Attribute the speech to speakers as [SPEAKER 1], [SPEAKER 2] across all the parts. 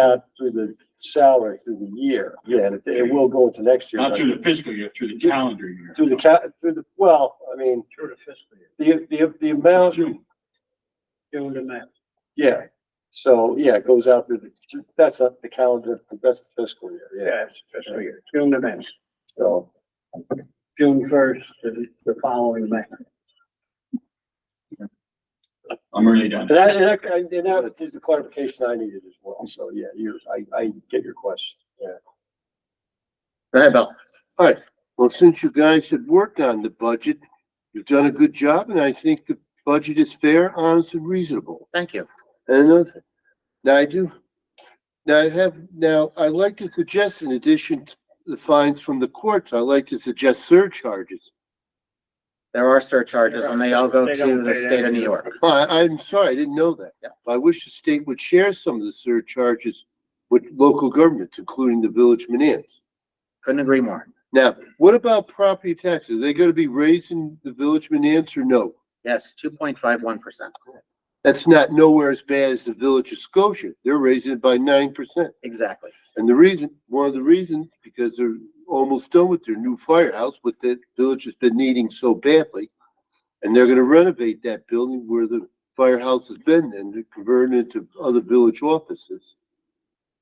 [SPEAKER 1] out through the salary through the year. Yeah, and it, it will go into next year.
[SPEAKER 2] Not
[SPEAKER 1] but-
[SPEAKER 2] through the fiscal year, through the calendar year.
[SPEAKER 1] Through the ca, through the, well, I mean,
[SPEAKER 3] Through the fiscal year,
[SPEAKER 1] the, the, the amount,
[SPEAKER 2] June.
[SPEAKER 3] June to May.
[SPEAKER 1] yeah. So, yeah, it goes out through the, that's not the calendar, that's the fiscal year, yeah,
[SPEAKER 3] Yes, fiscal year, June to May,
[SPEAKER 1] so.
[SPEAKER 3] June first to the- the following May.
[SPEAKER 2] I'm really done.
[SPEAKER 1] And that, and that, and that is the clarification I needed as well, so, yeah, yours, I, I get your question, yeah.
[SPEAKER 4] Go ahead, Bill. All right, well, since you guys have worked on the budget, you've done a good job, and I think the budget is fair, honest, and reasonable. Thank you. And another, thing. now I do, now I have, now I'd like to suggest in addition to the fines from the courts, I'd like to suggest surcharges.
[SPEAKER 5] There are surcharges and they all go
[SPEAKER 3] They
[SPEAKER 5] to
[SPEAKER 3] don't
[SPEAKER 5] the
[SPEAKER 3] pay
[SPEAKER 5] state of
[SPEAKER 3] that.
[SPEAKER 5] New York.
[SPEAKER 4] Oh, I, I'm sorry, I didn't know that.
[SPEAKER 5] Yeah.
[SPEAKER 4] I wish the state would share some of the surcharges with local governments, including the village manans.
[SPEAKER 5] Couldn't agree more.
[SPEAKER 4] Now, what about property taxes? Are they gonna be raising the village manans or no?
[SPEAKER 5] Yes, two point five one percent.
[SPEAKER 4] That's not nowhere as bad as the village of Scotia. They're raising it by nine percent.
[SPEAKER 5] Exactly.
[SPEAKER 4] And the reason, one of the reasons, because they're almost done with their new firehouse, what the village has been needing so badly. And they're gonna renovate that building where the firehouse has been and convert it into other village offices.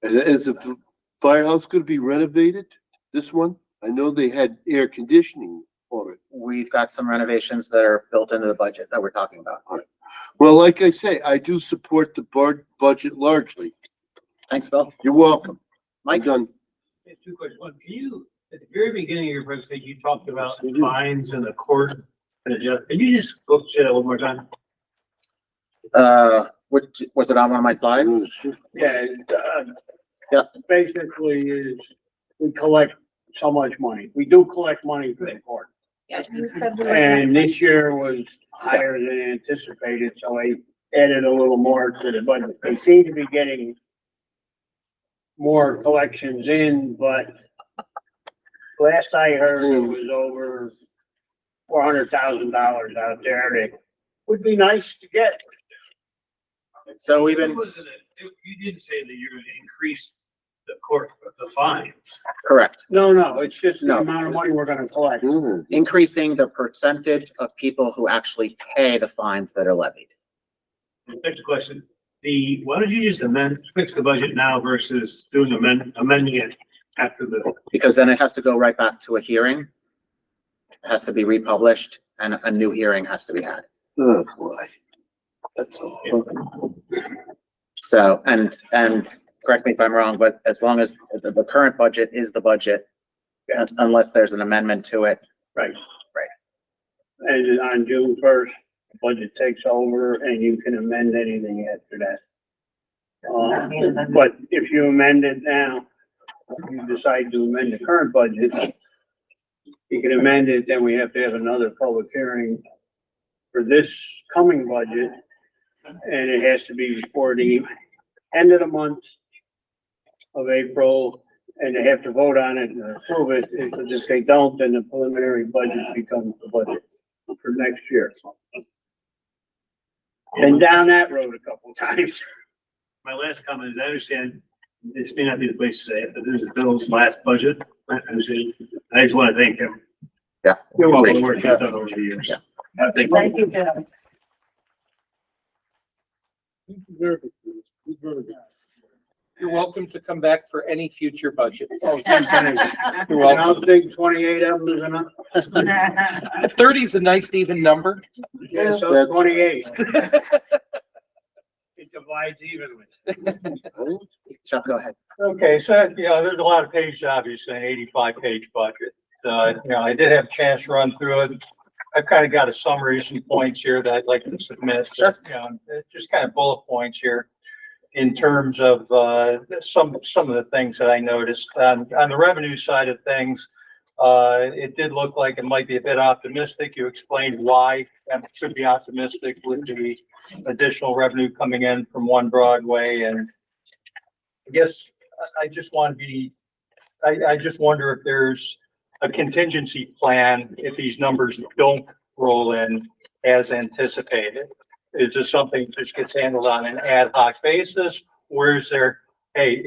[SPEAKER 4] And Is the firehouse gonna be renovated? This one? I know they had air conditioning for it.
[SPEAKER 5] We've got some renovations that are built into the budget that we're talking about.
[SPEAKER 4] Well, like I say, I do support the bar- budget largely.
[SPEAKER 5] Thanks, Bill.
[SPEAKER 4] You're welcome. I'm
[SPEAKER 5] Mike?
[SPEAKER 4] done.
[SPEAKER 6] Yeah, two questions. One, can you, at the very beginning of your presentation, you talked about
[SPEAKER 1] Yes, we do.
[SPEAKER 6] fines in the court and adjust, can you just go through that one more time?
[SPEAKER 5] Uh, which, was it on one of my slides?
[SPEAKER 3] Yeah, uh,
[SPEAKER 5] Yeah.
[SPEAKER 3] basically is, we collect so much money, we do collect money for the court.
[SPEAKER 7] Yeah, you said we were.
[SPEAKER 3] And this year was higher than anticipated, so I added a little more to the budget. They seem to be getting more collections in, but last I heard, it was over four hundred thousand dollars out there that would be nice to get.
[SPEAKER 5] So we've been,
[SPEAKER 6] Wasn't it- it- You did say that you're gonna increase the court, the fines.
[SPEAKER 5] correct,
[SPEAKER 3] No, no, it's just the
[SPEAKER 5] No.
[SPEAKER 3] amount of money we're gonna collect.
[SPEAKER 4] Mm.
[SPEAKER 5] increasing the percentage of people who actually pay the fines that are levied.
[SPEAKER 6] The Next question, the, why don't you just amend, fix the budget now versus doing amend, amending it after the,
[SPEAKER 5] Because then it has to go right back to a hearing. It has to be republished and a new hearing has to be had.
[SPEAKER 4] Oh, boy. That's all.
[SPEAKER 5] So, and, and correct me if I'm wrong, but as long as the, the current budget is the budget,
[SPEAKER 3] Yeah.
[SPEAKER 5] unless there's an amendment to it,
[SPEAKER 3] And on June first, the budget takes over and you can amend anything after that. Uh, But if you amend it now, if you decide to amend the current budget, you can amend it, then we have to have another public hearing for this coming budget. And it has to be before the end of the month of April, and they have to vote on it and approve it. If they don't, then the preliminary budget becomes the budget for next year. Been down that road a couple times.
[SPEAKER 6] my last comment is, I understand this may not be the place to say it, but this is Bill's last budget. I understand. I just wanna thank him.
[SPEAKER 5] Yeah.
[SPEAKER 6] You're welcome, the work he's done over the years.
[SPEAKER 5] Yeah.
[SPEAKER 6] I think-
[SPEAKER 7] Thank you, Joe.
[SPEAKER 8] You're welcome to come back for any future budgets.
[SPEAKER 1] Oh,
[SPEAKER 8] You're
[SPEAKER 3] And
[SPEAKER 8] welcome.
[SPEAKER 3] I'll dig twenty-eight of them is enough.
[SPEAKER 8] Thirty's a nice even number.
[SPEAKER 3] Yeah, so
[SPEAKER 4] That's-
[SPEAKER 3] twenty-eight. It divides evenly.
[SPEAKER 5] Chuck, go ahead.
[SPEAKER 1] Okay, so, you know, there's a lot of pages, obviously, an eighty-five page budget. Uh, you know, I did have a chance to run through it. I've kind of got a summary, of some points here that I'd like to submit.
[SPEAKER 5] Sure.
[SPEAKER 1] You know, uh, just kind of bullet points here in terms of, uh, some, some of the things that I noticed. On, on the revenue side of things, uh, it did look like it might be a bit optimistic. You explained why that should be optimistic with the additional revenue coming in from One Broadway and I guess I, I just want to be, I, I just wonder if there's a contingency plan if these numbers don't roll in as anticipated. Is this something that just gets handled on an ad hoc basis? Or is there, hey,